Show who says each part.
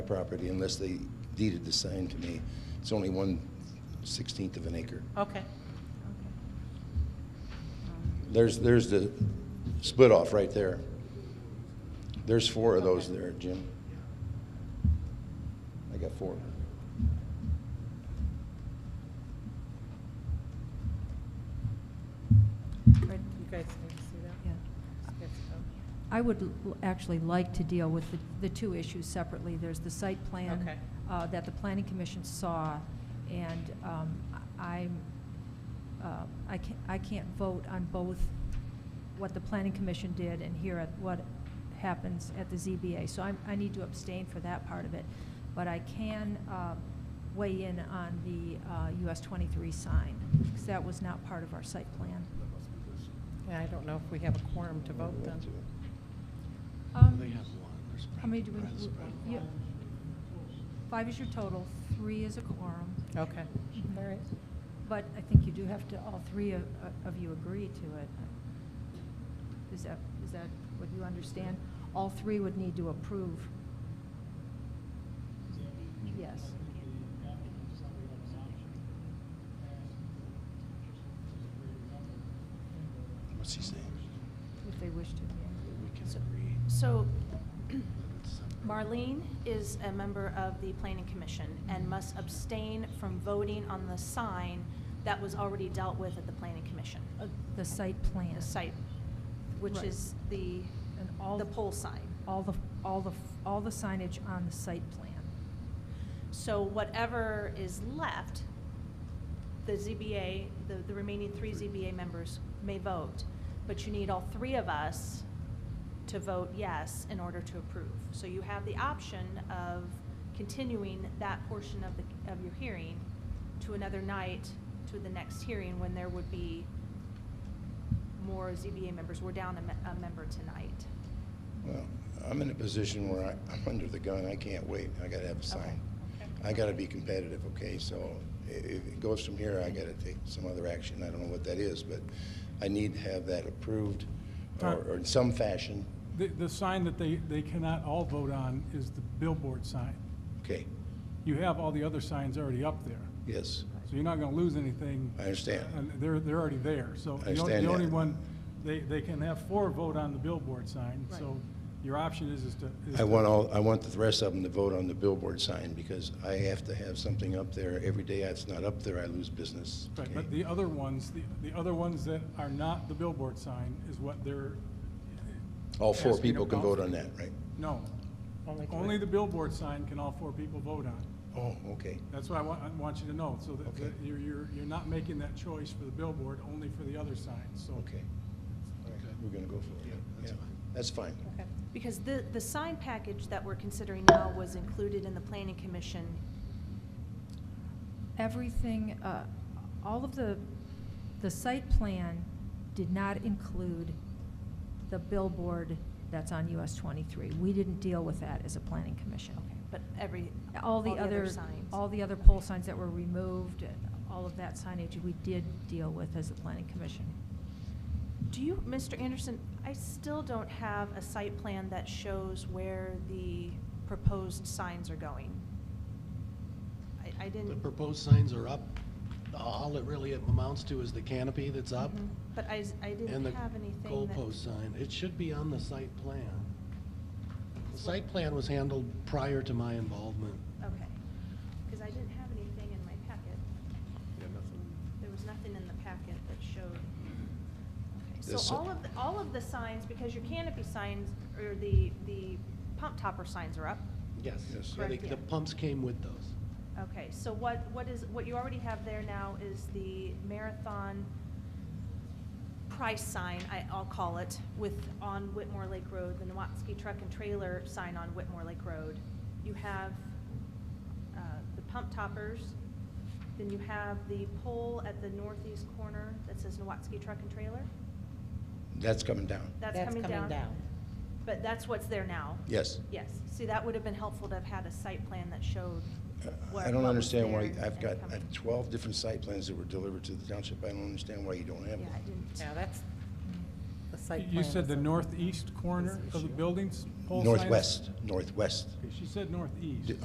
Speaker 1: property unless they deeded the sign to me. It's only one sixteenth of an acre.
Speaker 2: Okay.
Speaker 1: There's, there's the split off right there. There's four of those there, Jim. I got four.
Speaker 2: Right, You guys need to see that?
Speaker 3: Yeah.
Speaker 2: Yes, oh,
Speaker 3: I would l- actually like to deal with the, the two issues separately. There's the site plan.
Speaker 2: Okay.
Speaker 3: uh, that the planning commission saw, and um, I- I'm, uh, I can't, I can't vote on both what the planning commission did and here at what happens at the ZBA. So I'm, I need to abstain for that part of it, but I can uh, weigh in on the uh, US 23 sign, because that was not part of our site plan.
Speaker 2: Yeah, I don't know if we have a quorum to vote then.
Speaker 4: Um,
Speaker 3: They have one. How many do we, you- five is your total, three is a quorum,
Speaker 2: Okay, all right.
Speaker 3: but I think you do have to, all three of, of you agree to it. Is that, is that what you understand? All three would need to approve. Yes.
Speaker 1: What's he saying?
Speaker 3: If they wish to, yeah.
Speaker 5: So Marlene is a member of the Planning Commission and must abstain from voting on the sign that was already dealt with at the Planning Commission,
Speaker 3: Uh, The site plan.
Speaker 5: the site, which
Speaker 3: Right.
Speaker 5: is the,
Speaker 3: And all-
Speaker 5: the pole sign.
Speaker 3: All the, all the, all the signage on the site plan.
Speaker 5: So whatever is left, the ZBA, the, the remaining three ZBA members may vote, but you need all three of us to vote yes in order to approve. So you have the option of continuing that portion of the, of your hearing to another night, to the next hearing, when there would be more ZBA members. We're down a, me- a member tonight.
Speaker 1: Well, I'm in a position where I, I'm under the gun, I can't wait, I gotta have a sign. I gotta be competitive, okay, so i- if it goes from here, I gotta take some other action, I don't know what that is, but I need to have that approved, or, or in some fashion,
Speaker 6: The, the sign that they, they cannot all vote on is the billboard sign.
Speaker 1: okay,
Speaker 6: You have all the other signs already up there,
Speaker 1: yes,
Speaker 6: so you're not gonna lose anything.
Speaker 1: I understand.
Speaker 6: And they're, they're already there, so.
Speaker 1: I
Speaker 6: the only-
Speaker 1: understand
Speaker 6: The only
Speaker 1: that.
Speaker 6: one, they, they can have four vote on the billboard sign, so your option is, is to. is
Speaker 1: I
Speaker 6: to-
Speaker 1: want all, I want the rest of them to vote on the billboard sign, because I have to have something up there, every day it's not up there, I lose business.
Speaker 6: Right,
Speaker 1: okay?
Speaker 6: but the other ones, the, the other ones that are not the billboard sign is what they're.
Speaker 1: All four
Speaker 6: asking
Speaker 1: people can
Speaker 6: about.
Speaker 1: vote on that, right?
Speaker 6: No, only the billboard sign can all four people vote on.
Speaker 1: Oh, okay,
Speaker 6: That's what I want, I want you to know, so that,
Speaker 1: Okay.
Speaker 6: that you're, you're, you're not making that choice for the billboard, only for the other signs, so.
Speaker 1: okay. All right, We're gonna go for it, yeah, that's fine.
Speaker 5: Because the, the sign package that we're considering now was included in the Planning Commission
Speaker 3: Everything, uh, all of the, the site plan did not include the billboard that's on US 23. We didn't deal with that as a planning commission.
Speaker 5: But every,
Speaker 3: All the other,
Speaker 5: signs.
Speaker 3: all the other pole signs that were removed, all of that signage, we did deal with as a planning commission.
Speaker 5: Do you, Mr. Anderson, I still don't have a site plan that shows where the proposed signs are going. I, I
Speaker 4: The
Speaker 5: didn't.
Speaker 4: proposed signs are up. All it really amounts to is the canopy that's up
Speaker 5: Mhm. But I, s- I
Speaker 4: and the
Speaker 5: didn't have anything that.
Speaker 4: goalpost sign. It should be on the site plan. The site plan was handled prior to my involvement.
Speaker 5: Okay, because I didn't have anything in my packet. There was nothing in the packet that showed. Okay,
Speaker 1: This-
Speaker 5: So all of, the- all of the signs, because your canopy signs, or the, the pump topper signs are up.
Speaker 4: Yes.
Speaker 1: Yes.
Speaker 4: Yeah, they-
Speaker 5: Correct,
Speaker 4: The
Speaker 5: yeah.
Speaker 4: pumps came with those.
Speaker 5: Okay, so what, what is, what you already have there now is the marathon price sign, I, I'll call it, with, on Whitmore Lake Road, the Nowatzki truck and trailer sign on Whitmore Lake Road. You have, uh, the pump toppers, then you have the pole at the northeast corner that says Nowatzki truck and trailer.
Speaker 1: That's coming down,
Speaker 5: That's coming down. But that's what's there now.
Speaker 1: yes.
Speaker 5: Yes, see, that would have been helpful to have had a site plan that showed what,
Speaker 1: Uh, I don't
Speaker 5: what was
Speaker 1: understand why,
Speaker 5: there
Speaker 1: I've
Speaker 5: and
Speaker 1: got I
Speaker 5: coming.
Speaker 1: have 12 different site plans that were delivered to the township. I don't understand why you don't have
Speaker 5: Yeah, I
Speaker 1: them.
Speaker 5: didn't.
Speaker 2: Yeah, that's the site plan.
Speaker 6: You said the
Speaker 2: is-
Speaker 6: northeast corner of the buildings, pole sign? is-
Speaker 1: Northwest, northwest.
Speaker 6: She said northeast.